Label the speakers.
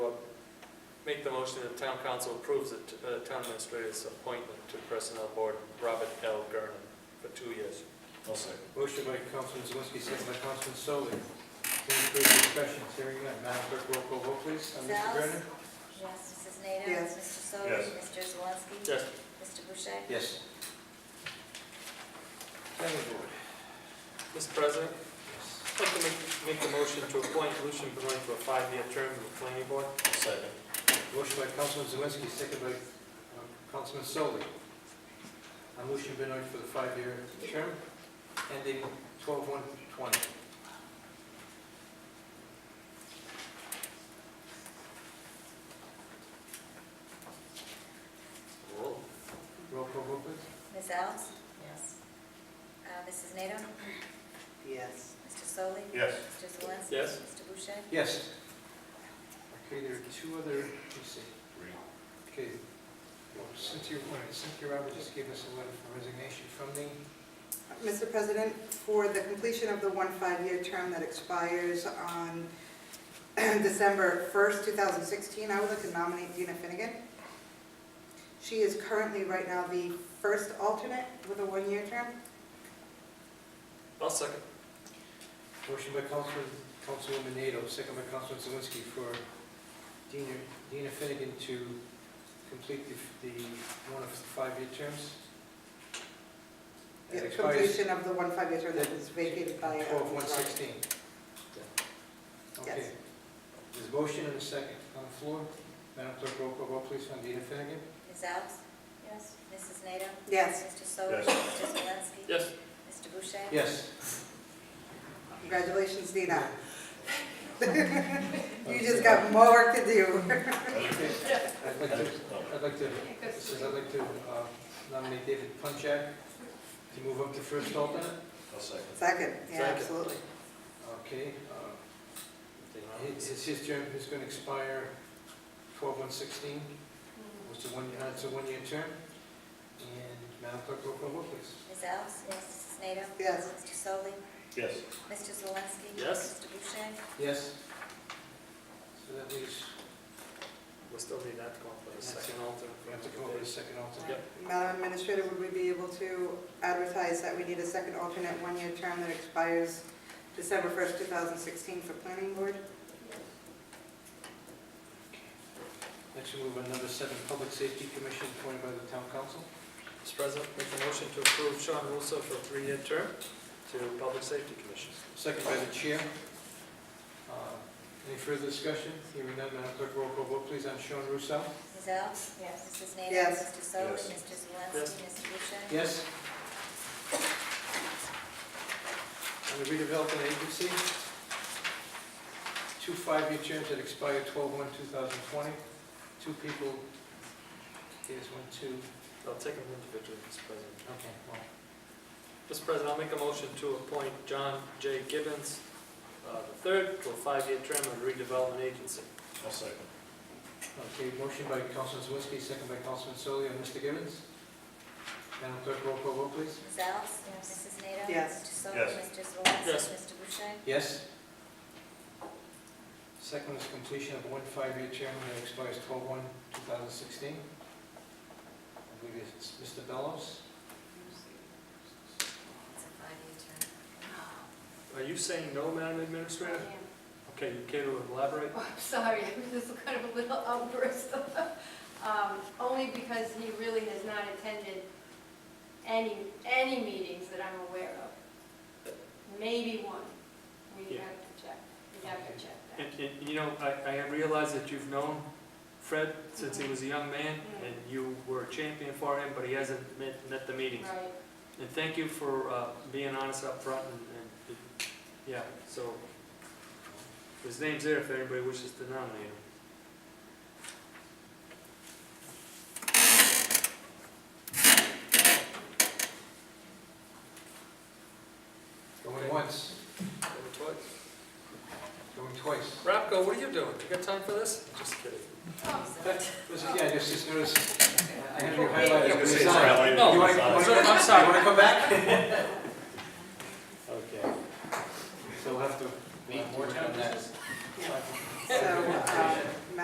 Speaker 1: Make the motion that town council approves the t- uh, town administrator's appointment to personnel board, Robert L. Gurnon, for two years.
Speaker 2: I'll second.
Speaker 3: Motion by Councilman Zawinski, second by Councilman Solly. Any further discussion? Hearing none. Madam Clerk, roll call vote, please. Uh, Mr.
Speaker 4: Sells?
Speaker 3: Brennan?
Speaker 4: Yes. Mrs. Nato?
Speaker 5: Yes.
Speaker 4: Mr. Solly?
Speaker 2: Yes.
Speaker 4: Mr. Zalinski?
Speaker 1: Yes.
Speaker 4: Mr. Boucher?
Speaker 3: Yes. Planning Board.
Speaker 1: Mr. President,
Speaker 3: Yes.
Speaker 1: I'd like to make, make the motion to appoint Lucian Benoit to a five-year term on the planning board.
Speaker 2: I'll second.
Speaker 3: Motion by Councilman Zawinski, second by uh, Councilman Solly. On Lucian Benoit for the five-year term ending 12/1/20. Roll call vote, please.
Speaker 4: Ms. Alves?
Speaker 5: Yes.
Speaker 4: Uh, Mrs. Nato?
Speaker 5: Yes.
Speaker 4: Mr. Solly?
Speaker 2: Yes.
Speaker 4: Mr. Zalinski?
Speaker 1: Yes.
Speaker 4: Mr. Boucher?
Speaker 3: Yes. Okay, there are two other, let me see.
Speaker 2: Three.
Speaker 3: Okay, Well, Cynthia, wait, Cynthia Roberts just gave us a letter of resignation from the,
Speaker 5: Mr. President, for the completion of the one five-year term that expires on December 1st, 2016, I would like to nominate Dina Finnegan. She is currently, right now, the first alternate with a one-year term.
Speaker 1: I'll second.
Speaker 3: motion by Councilman, Councilwoman Nato, second by Councilman Zawinski for Dina, Dina Finnegan to complete the, the one of the five-year terms. That
Speaker 5: The
Speaker 3: expires
Speaker 5: Completion of the one five-year term that was vacated by. uh,
Speaker 3: 12/1/16. Okay.
Speaker 5: Yes.
Speaker 3: There's a motion and a second on the floor. Madam Clerk, roll call vote, please, on Dina Finnegan.
Speaker 4: Ms. Alves? Yes. Mrs. Nato?
Speaker 5: Yes,
Speaker 4: Mr. Solly?
Speaker 2: Yes.
Speaker 4: Mr. Zalinski?
Speaker 1: Yes.
Speaker 4: Mr. Boucher?
Speaker 3: Yes.
Speaker 5: congratulations, Dina. You just got more work to do.
Speaker 3: Okay. I'd like to, I'd like to, says I'd like to uh, nominate David Punchak to move up to first alternate.
Speaker 2: I'll second.
Speaker 5: Second, yeah,
Speaker 1: Second.
Speaker 5: absolutely.
Speaker 3: Okay. uh, His, his- his term is going to expire 12/1/16, which is one, uh, it's a one-year term. And Madam Clerk, roll call vote, please.
Speaker 4: Ms. Alves? Yes. Mrs. Nato?
Speaker 5: Yes.
Speaker 4: Mr. Solly?
Speaker 2: Yes.
Speaker 4: Mr. Zalinski?
Speaker 1: Yes.
Speaker 4: Mr. Boucher?
Speaker 3: Yes. So that leaves,
Speaker 1: We still need that to come up with a second alternate.
Speaker 3: we have to come up with a second alternate.
Speaker 5: Madam Administrator, would we be able to advertise that we need a second alternate one-year term that expires December 1st, 2016 for Planning Board?
Speaker 3: Next, we move on to number seven, Public Safety Commission appointed by the Town Council.
Speaker 1: Mr. President, make the motion to approve Sean Russo for a three-year term to Public Safety Commission.
Speaker 3: Second by the chair. Uh, Any further discussion? Hearing none, Madam Clerk, roll call vote, please, on Sean Russo.
Speaker 4: Ms. Alves? Yes. Mrs. Nato?
Speaker 5: Yes.
Speaker 4: Mr. Solly?
Speaker 2: Yes.
Speaker 4: Mr. Zalinski?
Speaker 1: Yes.
Speaker 4: Mr. Boucher?
Speaker 3: Yes. On the redevelopment agency, two five-year terms that expire 12/1/2020. Two people, here's one, two,
Speaker 1: I'll take them individually, Mr. President.
Speaker 3: okay, well,
Speaker 1: Mr. President, I'll make a motion to appoint John J. Gibbons uh, III to a five-year term on the redevelopment agency.
Speaker 2: I'll second.
Speaker 3: okay, motion by Councilman Zawinski, second by Councilman Solly, and Mr. Givens. Madam Clerk, roll call vote, please.
Speaker 4: Ms. Alves? Yes. Mrs. Nato?
Speaker 5: Yes.
Speaker 4: Mr. Solly?
Speaker 2: Yes.
Speaker 4: Mr. Zalinski?
Speaker 1: Yes.
Speaker 4: Mr. Boucher?
Speaker 3: Yes. Second is completion of one five-year term that expires 12/1/2016. I believe it's Mr. Bellows.
Speaker 4: It's a five-year term.
Speaker 1: Are you saying no, Madam Administrator? Okay, you care to elaborate?
Speaker 6: Oh, I'm sorry, I was kind of a little outburst. Um, Only because he really has not attended any, any meetings that I'm aware of. Maybe one. We
Speaker 1: Yeah.
Speaker 6: have to check, we have to check that.
Speaker 1: And, and, you know, I, I realize that you've known Fred since he was a young man,
Speaker 6: Mhm.
Speaker 1: and you were a champion for him, but he hasn't met, met the meetings.
Speaker 6: Right,
Speaker 1: And thank you for uh, being honest up front, and, and, yeah, so, his name's there if anybody wishes to nominate him.
Speaker 3: Going once, going twice.
Speaker 1: Rapco, what are you doing? You got time for this? Just kidding.
Speaker 6: oh,
Speaker 3: That was- Yeah, I just, just noticed, I had you highlighted.
Speaker 2: I was gonna say,
Speaker 3: Resign.
Speaker 2: it's highlighted.
Speaker 1: No,
Speaker 3: You wanna-
Speaker 2: Resign.
Speaker 3: wanna-
Speaker 1: I'm
Speaker 3: You
Speaker 1: sorry.
Speaker 3: want to come back?
Speaker 5: um,